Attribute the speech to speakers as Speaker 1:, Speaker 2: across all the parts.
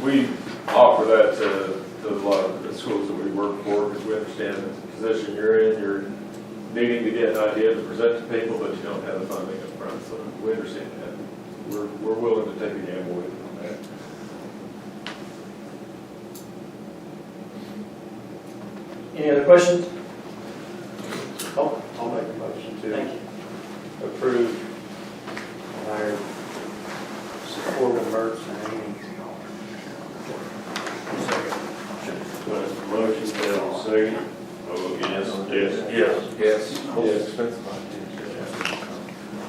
Speaker 1: we offer that to, to a lot of the schools that we work for, because we understand the position you're in, you're needing to get ideas to present to people, but you don't have the funding up front. so we understand that. We're, we're willing to take a gamble with you on that.
Speaker 2: Any other questions?
Speaker 3: I'll, Oh, I'll make a motion
Speaker 2: Thank
Speaker 3: to
Speaker 2: you.
Speaker 3: approve hire support of Mertz and Amy.
Speaker 4: Well, Motion failed, second. Oh, yes, yes, yes.
Speaker 1: Yes.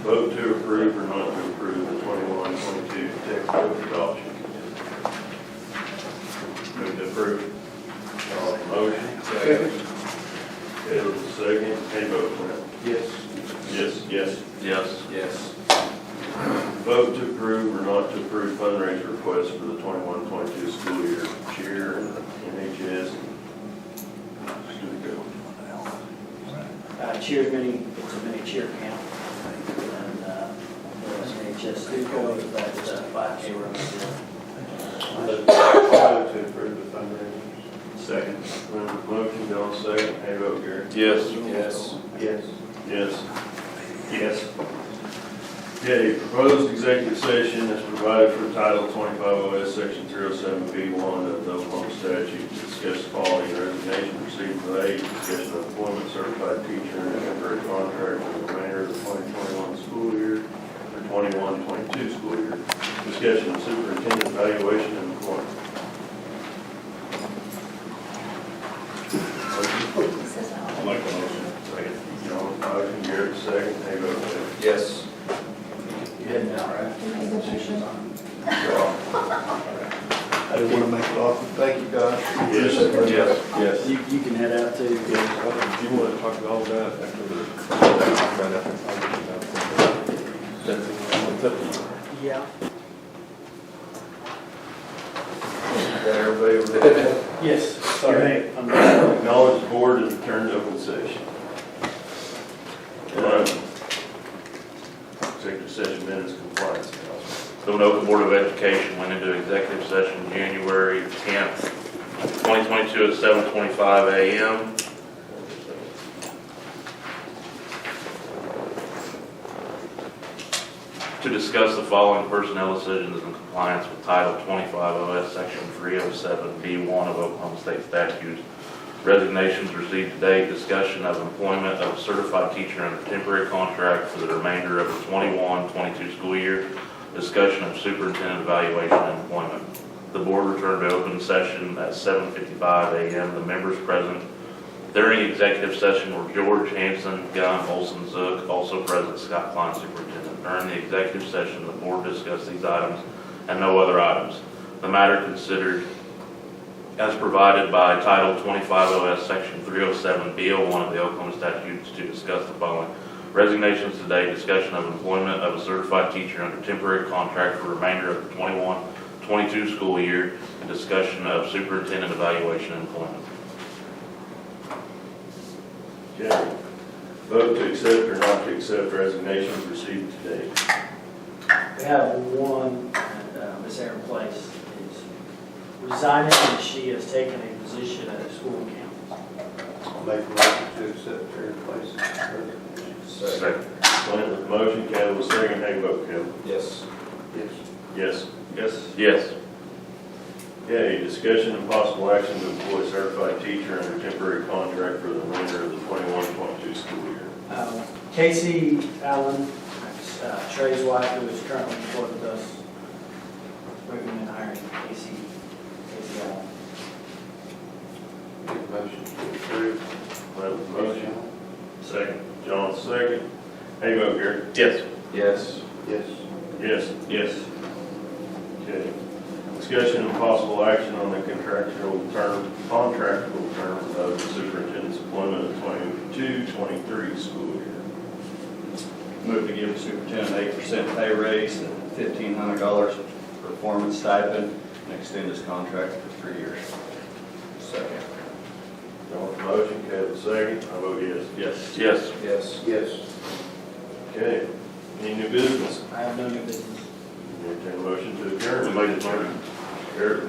Speaker 4: Vote to approve or not to approve the 21, 22 textbook adoption. Move to approve. Uh, Motion. Second. Failed, second. Any vote, Brent?
Speaker 3: Yes.
Speaker 4: Yes, yes. Yes.
Speaker 5: Yes.
Speaker 4: Vote to approve or not to approve fundraiser request for the 21, 22 school year cheer and NHS. Should we go?
Speaker 2: Uh, Cheers mini, it's a mini cheer camp. And uh, the NHS do go with that uh, five K run.
Speaker 3: I'll move to approve the fundraisers.
Speaker 4: Second. Motion, Bill, second. How you vote, Gary?
Speaker 5: Yes.
Speaker 3: Yes.
Speaker 4: Yes. Yes. Okay, proposed executive session is provided for Title 25 OS Section 07B1 of the Oklahoma statute to discuss the following resignation received today, discussion of employment certified teacher and temporary contract for the remainder of the 2021 school year, or 21-22 school year, discussion of superintendent evaluation and employment. Like a motion. Second. John, motion, Garrett, second. How you vote,
Speaker 5: Yes.
Speaker 3: You had an hour.
Speaker 6: I didn't want to make it awkward. Thank you, guys.
Speaker 4: Yes. Yes.
Speaker 1: Yes.
Speaker 2: You you can head out too.
Speaker 1: Do you want to talk about all that after the?
Speaker 2: Yeah.
Speaker 4: Got everybody over there?
Speaker 2: Yes, sorry. I'm-
Speaker 4: Acknowledge the board has returned to open session. Um, Executive session minutes compliance.
Speaker 7: The Winoka Board of Education went into executive session January 10th, 2022 at 7:25 a.m. to discuss the following personnel decisions in compliance with Title 25 OS Section 307B1 of Oklahoma State statutes. Resignations received today, discussion of employment of certified teacher under temporary contract for the remainder of the 21-22 school year, discussion of superintendent evaluation and employment. The board returned to open session at 7:55 a.m. The members present during executive session were George Hanson, Gunn, Olson, Zook, also present Scott Klein, superintendent. During the executive session, the board discussed these items and no other items. The matter considered as provided by Title 25 OS Section 307B01 of the Oklahoma statutes to discuss the following. Resignations today, discussion of employment of a certified teacher under temporary contract for remainder of the 21-22 school year, and discussion of superintendent evaluation and employment.
Speaker 4: Okay. Vote to accept or not to accept resignations received today.
Speaker 2: We have one, uh, Miss Erin Place is resigning and she has taken a position at a school campus.
Speaker 3: I'll make a motion to accept her in place.
Speaker 4: Second. Clint with motion, Kevin with second. How you vote, Kevin?
Speaker 5: Yes.
Speaker 3: Yes.
Speaker 4: Yes. Yes.
Speaker 7: Yes.
Speaker 4: Okay, discussion and possible action to employ certified teacher under temporary contract for the remainder of the 21-22 school year.
Speaker 2: Um, Casey Allen, uh, Trey's wife, who is currently employed with us, recommend hiring Casey, Casey Allen.
Speaker 3: Make a motion to approve.
Speaker 4: Clint with motion. Second. John, second. How you vote, Gary?
Speaker 7: Yes.
Speaker 5: Yes.
Speaker 3: Yes.
Speaker 4: Yes. Yes. Okay. Discussion and possible action on the contractual term, contractual term of the superintendent's employment of 22-23 school year.
Speaker 6: Move to give the superintendent eight percent pay raise and fifteen hundred dollars performance stipend and extend his contract for three years. Second.
Speaker 4: John with motion, Kevin second. I vote yes. Yes.
Speaker 7: Yes.
Speaker 5: Yes.
Speaker 3: Yes.
Speaker 4: Okay. Any new business?
Speaker 2: I have no new business.
Speaker 4: Entertained a motion to adjourn.
Speaker 7: Make a motion.
Speaker 4: Eric,